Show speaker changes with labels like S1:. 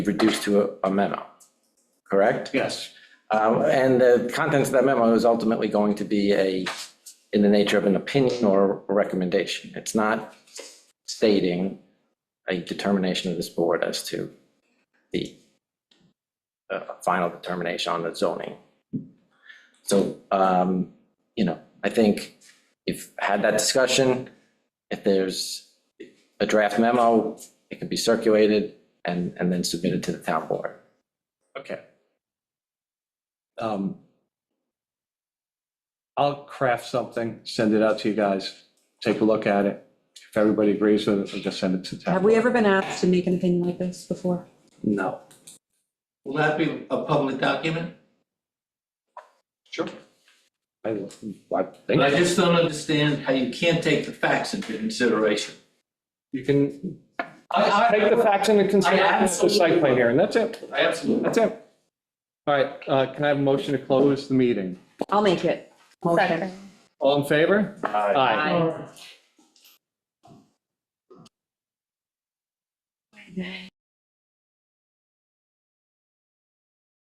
S1: reduced to a a memo, correct?
S2: Yes,
S1: Um, And the contents of that memo is ultimately going to be a, in the nature of an opinion or a recommendation. It's not stating a determination of this board as to the uh, final determination on the zoning. So, um, you know, I think if had that discussion, if there's a draft memo, it can be circulated and, and then submitted to the town board.
S2: okay. Um, I'll craft something, send it out to you guys, take a look at it. If everybody agrees with it, we'll just send it to town.
S3: Have we ever been asked to make an opinion like this before?
S2: No.
S4: Will that be a public document?
S2: Sure. I, I
S4: I
S2: think
S4: just don't understand how you can't take the facts into consideration.
S2: you can
S4: I,
S2: take the facts into consideration with the site plan
S4: absolutely-
S2: here, and that's it,
S4: I absolutely.
S2: that's it. All right, uh, can I have a motion to close the meeting?
S3: I'll make it. Second.
S2: All in favor? Aye.
S3: Aye.